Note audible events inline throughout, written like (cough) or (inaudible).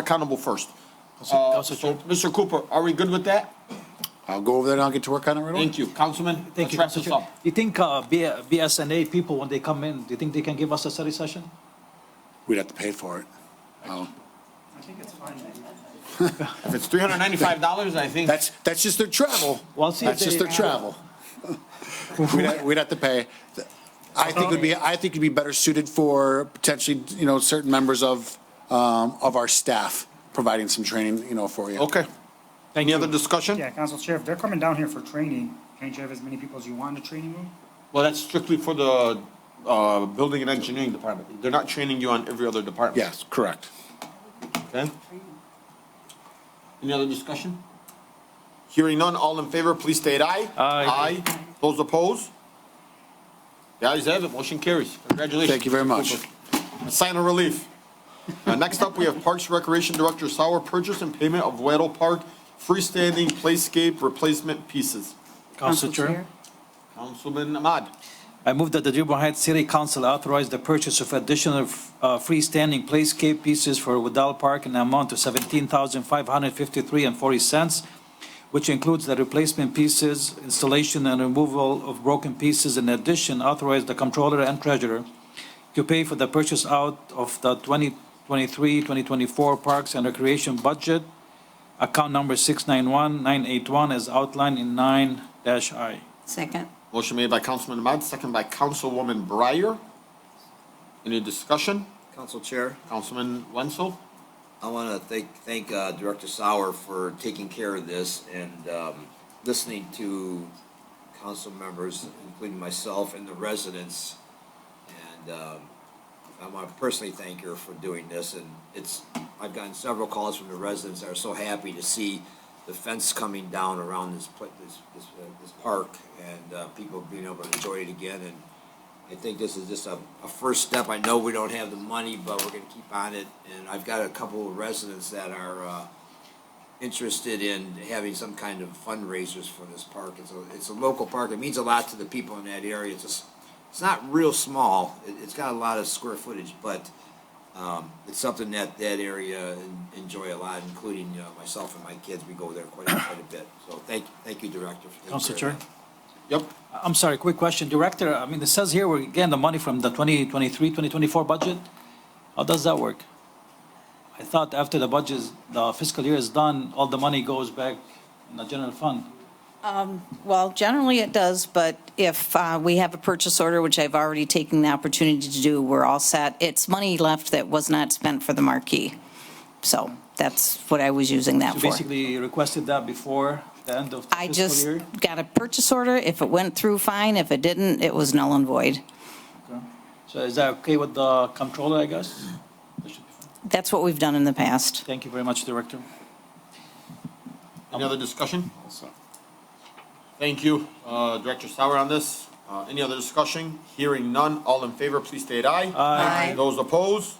accountable first. Uh, Council So, Chair. Mr. Cooper, are we good with that? I'll go over there and I'll get to work on it right away. Thank you, Councilman. Thank Let's you, wrap Council this Chair. up. You think uh, B- BSNA people, when they come in, do you think they can give us a study session? We'd have to pay for it. Um, (laughs) If it's three hundred ninety-five dollars, I think, That's, that's just their travel. Well, see if That's just they- their travel. We'd have- we'd have to pay. I think it'd be, I think it'd be better suited for potentially, you know, certain members of, um, of our staff providing some training, you know, for you. okay. Any other discussion? Yeah, Council Chair, if they're coming down here for training, can't you have as many people as you want in the training room? Well, that's strictly for the, uh, building and engineering department. They're not training you on every other department. Yes, correct. Okay? Any other discussion? Hearing none, all in favor, please state aye. Aye. Aye. Those opposed? The ayes have it, motion carries. Congratulations. Thank you very much. Mr. Cooper. A Sign of relief. Uh, Next up, we have Parks Recreation Director Sauer, purchase and payment of Weddle Park freestanding playscape replacement pieces. Council Chair. Councilman Ahmad. I move that the Dearborn Heights City Council authorize the purchase of additional uh, freestanding playscape pieces for Woodall Park in an amount of seventeen thousand five hundred fifty-three and forty cents, which includes the replacement pieces, installation and removal of broken pieces. In addition, authorize the comptroller and treasurer to pay for the purchase out of the 2023-2024 Parks and Recreation budget, account number six nine one nine eight one, as outlined in nine dash I. Second. Motion made by Councilman Ahmad, second by Councilwoman Breyer. Any discussion? Council Chair, Councilman Wenzel? I want to thank, thank uh, Director Sauer for taking care of this and um, listening to council members, including myself and the residents. And um, I want to personally thank her for doing this. And it's, I've gotten several calls from the residents that are so happy to see the fence coming down around this, pla- this, this, uh, this park and uh, people being able to enjoy it again. And I think this is just a, a first step. I know we don't have the money, but we're gonna keep on it. And I've got a couple of residents that are, uh, interested in having some kind of fundraisers for this park. It's a, it's a local park. It means a lot to the people in that area. It's just, it's not real small. It, it's got a lot of square footage, but, um, it's something that that area en- enjoy a lot, including, uh, myself and my kids. We go there quite, quite a bit. So thank, thank you, Director. for taking Council care of Chair. that. Yep. I'm sorry, quick question. Director, I mean, it says here we're getting the money from the 2023, 2024 budget. How does that work? I thought after the budget, is- the fiscal year is done, all the money goes back in the general fund. Well, generally it does, but if uh, we have a purchase order, which I've already taken the opportunity to do, we're all set. It's money left that was not spent for the marquee. So that's what I was using that So for. basically you requested that before the end of the I just fiscal year? got a purchase order. If it went through, fine. If it didn't, it was null and void. So is that okay with the comptroller, I guess? That's what we've done in the past. Thank you very much, Director. Any other discussion? Thank you, uh, Director Sauer on this. Uh, Any other discussion? Hearing none, all in favor, please state aye. Aye. Aye. Those opposed?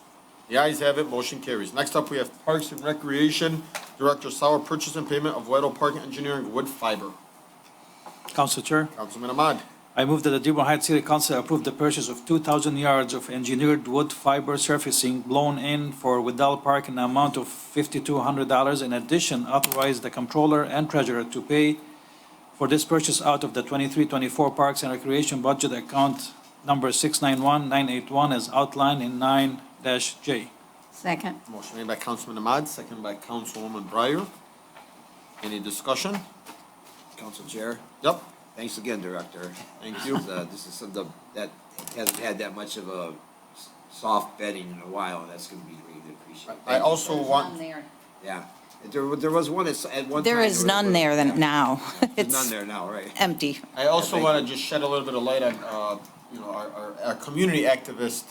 The ayes have it, motion carries. Next up, we have Parks and Recreation, Director Sauer, purchase and payment of Weddle Park Engineering wood fiber. Council Chair? Councilman Ahmad. I move that the Dearborn Heights City Council approve the purchase of 2,000 yards of engineered wood fiber surfacing blown in for Widell Park in an amount of $5,200. In addition, authorize the comptroller and treasurer to pay for this purchase out of the 23-24 Parks and Recreation Budget Account Number 691981 as outlined in 9-J. Second. Motion made by Councilman Ahmad, second by Councilwoman Breyer. Any discussion? Council Chair. Yep, Thanks again, Director. Thank (laughs) you. Uh, This is something that hasn't had that much of a s- soft bedding in a while, and that's gonna be really appreciated. I also want, Yeah, there, there was one, at at one time. There is was- none there yeah. than now. There's none It's there now, right? empty. I also Thank want to just shed a little bit of light on, uh, you know, our, our, our community activist,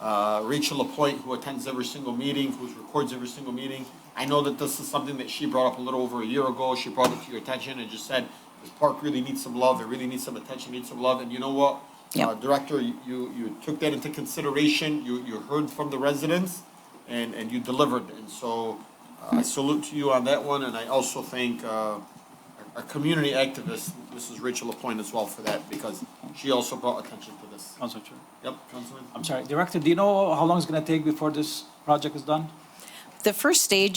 uh, Rachel Lapointe, who attends every single meeting, who records every single meeting. I know that this is something that she brought up a little over a year ago. She brought it to your attention and just said, this park really needs some love. It really needs some attention, needs some love. And you know what? Yep. Uh, Director, you, you took that into consideration. You, you heard from the residents and, and you delivered. And so uh, I salute to you on that one. And I also thank, uh, our community activist, Mrs. Rachel Lapointe as well for that, because she also brought attention to this. Council Chair. Yep, Councilman? I'm sorry, Director, do you know how long it's going to take before this project is done? the first stage